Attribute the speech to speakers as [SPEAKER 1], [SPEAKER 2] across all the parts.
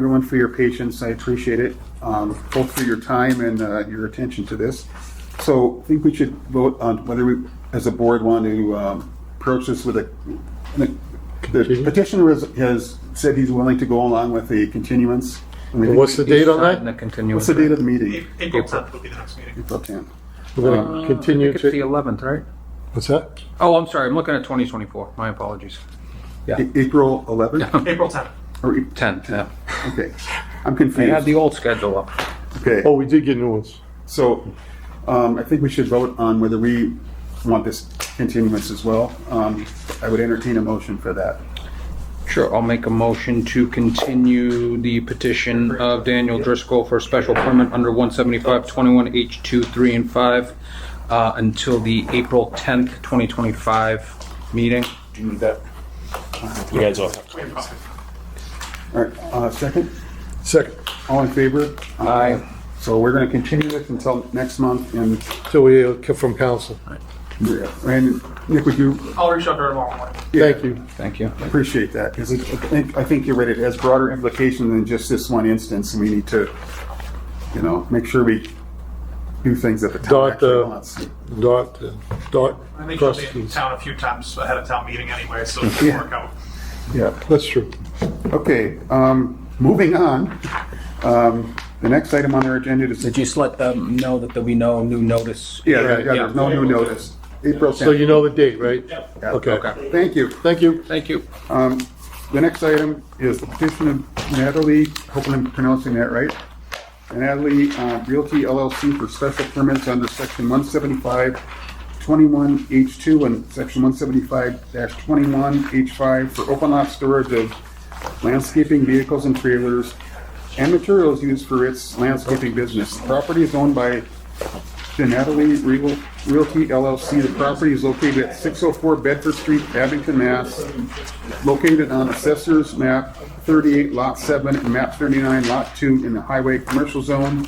[SPEAKER 1] everyone for your patience. I appreciate it, um, both for your time and uh, your attention to this. So I think we should vote on whether we, as a board, want to um, approach this with a, the petitioner has- has said he's willing to go along with the continuance. And we think-
[SPEAKER 2] What's the date on
[SPEAKER 3] Not in
[SPEAKER 2] that?
[SPEAKER 3] the
[SPEAKER 1] What's
[SPEAKER 3] continuous.
[SPEAKER 1] the date of the meeting?
[SPEAKER 4] A- April 10th would be the next meeting.
[SPEAKER 1] April 10th.
[SPEAKER 2] We're going to continue
[SPEAKER 3] It's the
[SPEAKER 2] to,
[SPEAKER 3] 11th, right?
[SPEAKER 2] what's that?
[SPEAKER 3] Oh, I'm sorry, I'm looking at 2024, my apologies.
[SPEAKER 1] A- April 11th?
[SPEAKER 4] April 10th.
[SPEAKER 1] Or e-
[SPEAKER 3] 10th, yeah.
[SPEAKER 1] Okay, I'm
[SPEAKER 3] I had the
[SPEAKER 1] confused.
[SPEAKER 3] old schedule up.
[SPEAKER 1] Okay.
[SPEAKER 2] Oh, we did get new ones.
[SPEAKER 1] So um, I think we should vote on whether we want this continuance as well. Um, I would entertain a motion for that.
[SPEAKER 3] Sure, I'll make a motion to continue the petition of Daniel Driscoll for a special permit under 175-21H2, 3, and 5 uh, until the April 10th, 2025 meeting.
[SPEAKER 1] Do you need that?
[SPEAKER 5] You guys all.
[SPEAKER 1] All right, uh, second,
[SPEAKER 2] Second,
[SPEAKER 1] all in favor?
[SPEAKER 3] Aye.
[SPEAKER 1] So we're going to continue this until next month, and,
[SPEAKER 2] till we hear from council.
[SPEAKER 1] and Nick, would you,
[SPEAKER 4] I'll reach out to her tomorrow morning.
[SPEAKER 2] Thank you.
[SPEAKER 3] Thank you.
[SPEAKER 1] appreciate that, because I think, I think you're right, it has broader implication than just this one instance, and we need to, you know, make sure we do things that the town
[SPEAKER 2] Dot,
[SPEAKER 1] actually
[SPEAKER 2] uh,
[SPEAKER 1] wants.
[SPEAKER 2] Dot, uh, dot,
[SPEAKER 4] I think she'll be in
[SPEAKER 2] trustees.
[SPEAKER 4] town a few times ahead of town meeting anyway, so it should
[SPEAKER 1] Yeah.
[SPEAKER 4] work out.
[SPEAKER 1] Yeah.
[SPEAKER 2] That's true.
[SPEAKER 1] Okay, um, moving on. Um, the next item on our agenda is.
[SPEAKER 3] Did you just let them know that there'll be no new notice?
[SPEAKER 1] Yeah, yeah, yeah, there's no new
[SPEAKER 4] Yeah.
[SPEAKER 1] notice. April
[SPEAKER 2] So you
[SPEAKER 1] 10th.
[SPEAKER 2] know the date, right?
[SPEAKER 1] Yeah.
[SPEAKER 2] Okay.
[SPEAKER 3] Okay.
[SPEAKER 1] Thank you.
[SPEAKER 2] Thank you.
[SPEAKER 3] Thank you.
[SPEAKER 1] Um, the next item is the petition of Natalie, hopefully I'm pronouncing that right. Natalie uh, Realty LLC for special permits under section 175, 21H2 and section 175-21H5 for open lot storage of landscaping vehicles and trailers and materials used for its landscaping business. Property is owned by the Natalie Real- Realty LLC. The property is located at 604 Bedford Street, Abington, Mass located on Assessor's Map 38, Lot 7, and Map 39, Lot 2, in the Highway Commercial Zone.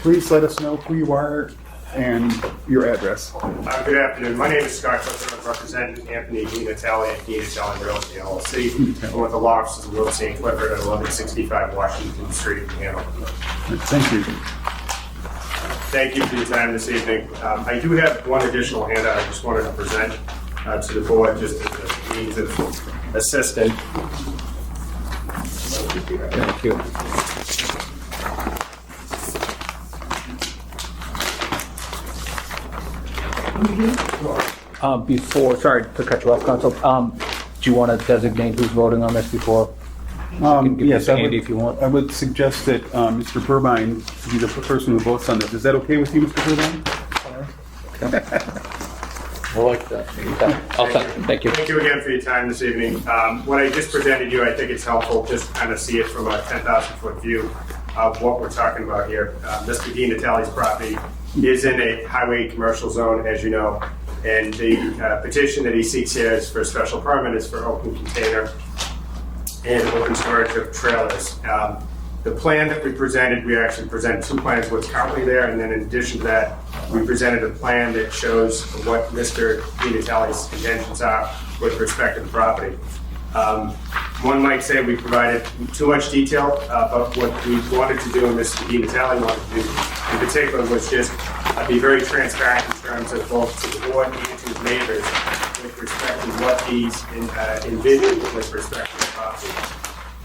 [SPEAKER 1] Please let us know who you are and your address.
[SPEAKER 6] Uh, Good afternoon. My name is Scott Clifford. I'm representing Anthony Dinatelli at Dinatelli Realty LLC. I'm with the law offices of Wilson and Clifford at 1165 Washington Street in Hanover.
[SPEAKER 1] Thank you.
[SPEAKER 6] Thank you for your time this evening. Um, I do have one additional handout I just wanted to present uh, to the board, just as a means of assistance.
[SPEAKER 3] Thank you. Uh, Before, sorry to cut you off, Council, um, do you want to designate who's voting on this before?
[SPEAKER 1] Um,
[SPEAKER 3] give
[SPEAKER 1] yes,
[SPEAKER 3] this to
[SPEAKER 1] I would-
[SPEAKER 3] Andy if you want.
[SPEAKER 1] I would suggest that um, Mr. Burbine be the person who votes on this. Is that okay with you, Mr. Burbine?
[SPEAKER 3] I like that. I'll second, thank you.
[SPEAKER 6] Thank you again for your time this evening. Um, What I just presented you, I think it's helpful, just to kind of see it from a 10,000-foot view of what we're talking about here. Uh, Mr. Dean Natale's property is in a highway commercial zone, as you know, and the uh, petition that he seeks here is for a special permit, is for open container and open storage of trailers. Um, The plan that we presented, we actually presented two plans, what's currently there, and then in addition to that, we presented a plan that shows what Mr. Vinatelli's intentions are with respect to the property. Um, One might say we provided too much detail, uh, but what we wanted to do, and Mr. Vinatelli wanted to do in particular, was just uh, be very transparent in terms of both to the board and to his neighbors with respect to what he's en- uh, envisioned with respect to the property.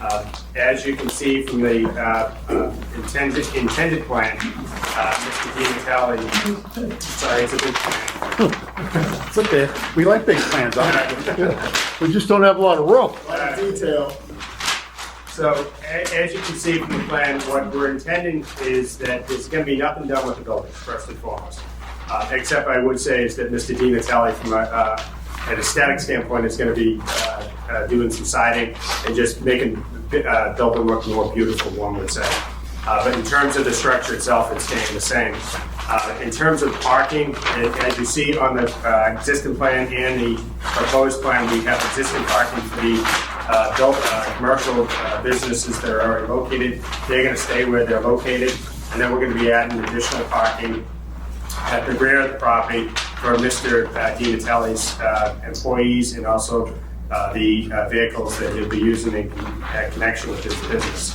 [SPEAKER 6] Um, As you can see from the uh, uh, intended, intended plan, uh, Mr. Dean sorry, it's a big plan.
[SPEAKER 1] It's okay. We like big plans, all right?
[SPEAKER 2] We just don't have a lot of room.
[SPEAKER 6] lot of detail. So, a- as you can see from the plan, what we're intending is that there's gonna be nothing done with the building, first and foremost. Uh, except I would say is that Mr. Di Natale, from a, uh, an aesthetic standpoint, is gonna be, uh, uh, doing some siding and just making, the, uh, building look more beautiful, one would say. Uh, but in terms of the structure itself, it's staying the same. Uh, in terms of parking, a- as you see on the, uh, existing plan and the proposed plan, we have existing parking for the uh, built, uh, commercial uh, businesses that are already located. They're gonna stay where they're located, and then we're gonna be adding additional parking at the rear of the property for Mr. DiNatale's uh, employees and also uh, the uh, vehicles that he'll be using in uh, connection with his business.